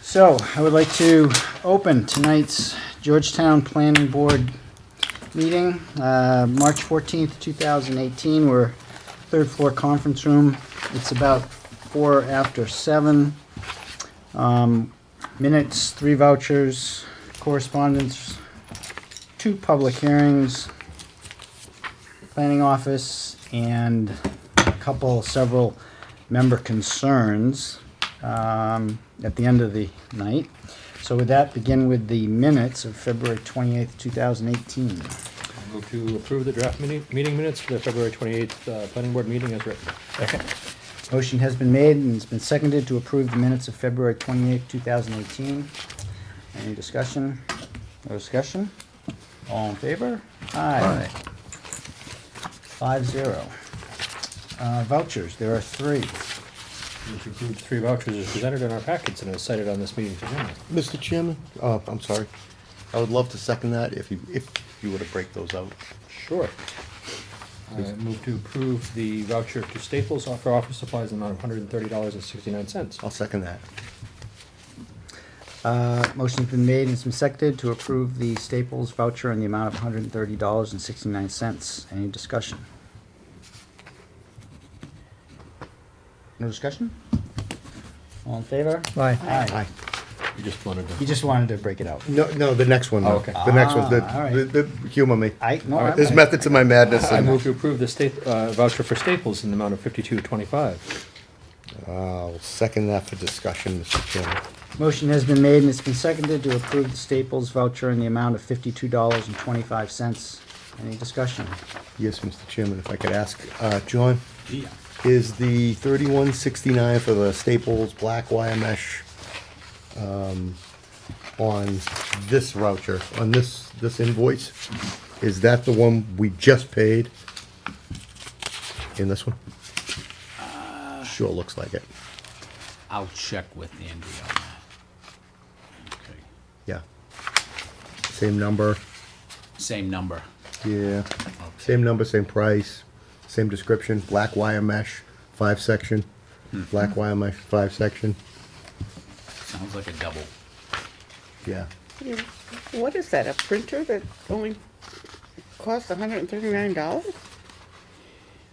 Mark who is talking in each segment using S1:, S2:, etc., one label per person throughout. S1: So I would like to open tonight's Georgetown Planning Board meeting, uh, March 14th, 2018. We're third floor conference room. It's about four after seven. Um, Minutes, three vouchers, correspondence, two public hearings, planning office, and a couple, several member concerns um, at the end of the night. So with that, begin with the minutes of February 28th, 2018.
S2: Move to approve the draft mini- meeting minutes for the February 28th uh, planning board meeting as written. Second.
S1: Motion has been made and it's been seconded to approve the minutes of February 28th, 2018. Any discussion? No discussion? All in favor? Aye. Five zero. Uh, Vouchers, there are three.
S2: Move to approve the three vouchers as presented in our packets and as cited on this meeting's agenda.
S3: Mr. Chairman, uh, I'm sorry. I would love to second that if you, if you were to break those out.
S2: Sure. I Move to approve the voucher to Staples for office supplies in the amount of $130.69.
S3: I'll second that.
S1: Uh, Motion's been made and it's been seconded to approve the Staples voucher in the amount of $130.69. Any discussion? No discussion? All in favor?
S2: Aye.
S1: Aye.
S2: You just wanted
S1: You just wanted to break it out.
S3: No, no, the next one,
S2: Oh,
S3: though.
S2: okay.
S3: The next one,
S1: Ah, all right.
S3: the- the, the, humor me.
S1: I, no,
S2: All right,
S1: I'm-
S3: There's method to my madness.
S2: I move to approve the sta- uh, voucher for Staples in the amount of 52.25.
S3: I'll second that for discussion, Mr. Chairman.
S1: Motion has been made and it's been seconded to approve the Staples voucher in the amount of fifty-two dollars and twenty-five cents. Any discussion?
S3: Yes, Mr. Chairman, if I could ask, uh, John? Is the thirty-one sixty-nine for the Staples black wire mesh, um, on this voucher, on this, this invoice? Is that the one we just paid? In this one? Sure looks like it,
S4: I'll check with Andy on that. Okay.
S3: yeah. Same number,
S4: Same number.
S3: yeah, same number, same price, same description, black wire mesh, five section, black wire mesh, five section,
S4: Sounds like a double.
S3: yeah.
S5: Yeah, What is that, a printer that only costs hundred and thirty-nine dollars?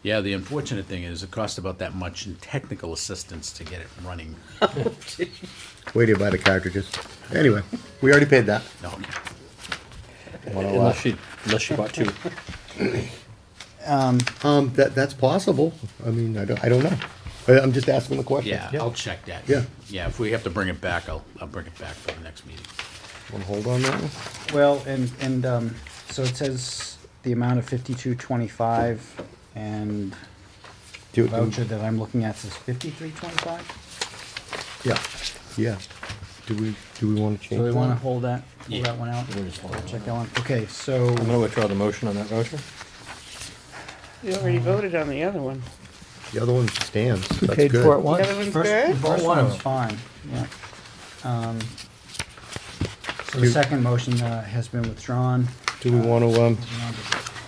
S4: Yeah, the unfortunate thing is it cost about that much in technical assistance to get it running.
S3: Wait till you buy the cartridges. Anyway, we already paid that.
S4: No,
S2: Unless she, unless she bought two.
S3: Um, that, that's possible. I mean, I don't, I don't know. I- I'm just asking the question.
S4: yeah, I'll check that.
S3: Yeah.
S4: Yeah, if we have to bring it back, I'll, I'll bring it back for the next meeting.
S3: Want to hold on that one?
S1: Well, and, and, um, so it says the amount of fifty-two twenty-five and
S3: Do
S1: the
S3: it-
S1: voucher that I'm looking at says fifty-three twenty-five?
S3: Yeah, yeah. Do we, do we want to change
S1: Do we
S3: that?
S1: wanna hold that,
S4: Yeah.
S1: hold that one out?
S2: We'll just hold it.
S1: Check that one, okay, so,
S2: I'm going to withdraw the motion on that voucher.
S5: You already voted on the other one.
S3: The other one stands. That's
S6: paid
S3: good.
S6: for it
S5: The
S6: once.
S5: other one's
S1: first,
S5: good?
S1: first
S6: one of
S1: one's
S6: them.
S1: fine, yeah. Um, So the
S3: Two.
S1: second motion, uh, has been withdrawn.
S3: Do we want to, um,
S1: You know,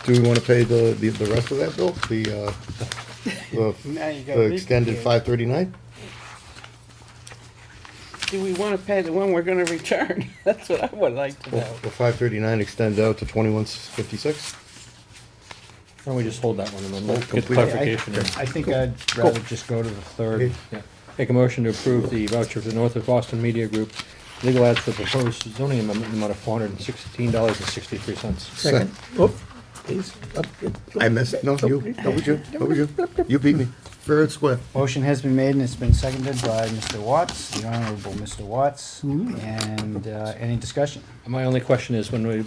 S3: do we want to pay the, the, the rest of that bill? The, uh, the,
S5: Now you got
S3: the extended five thirty-nine?
S5: Do we wanna pay the one we're gonna return? That's what I would like to
S3: Will,
S5: know.
S3: five thirty-nine extend out to twenty-one fifty-six?
S2: Why don't we just hold that one and then we'll get
S3: Complete.
S2: clarification?
S1: I-
S2: and-
S1: I think I'd rather just go to the third.
S2: Yeah. Make a motion to approve the voucher for the North of Boston Media Group, legal ads for proposed zoning amendment in the amount of four hundred and sixteen dollars and sixty-three cents.
S6: Second. Oop. He's up.
S3: I missed, no, you, that was you, that was you. You beat me. Fair and square.
S1: Motion has been made and it's been seconded by Mr. Watts, the Honorable Mr. Watts.
S5: Mm-hmm.
S1: And uh, any discussion?
S2: My only question is when we,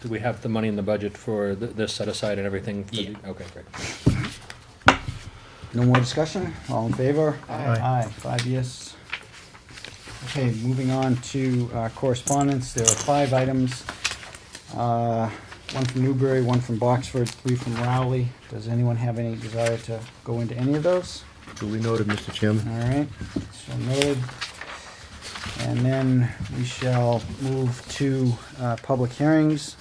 S2: do we have the money in the budget for th- this set aside and everything? for the-
S4: Yeah.
S2: Okay, great.
S1: No more discussion? All in favor? Aye. Aye, five yes. Okay, moving on to uh, correspondence. There are five items. Uh, One from Newbury, one from Boxford, three from Rowley. Does anyone have any desire to go into any of those?
S3: Duly noted, Mr. Chairman.
S1: All right, so noted. And then we shall move to uh, public hearings.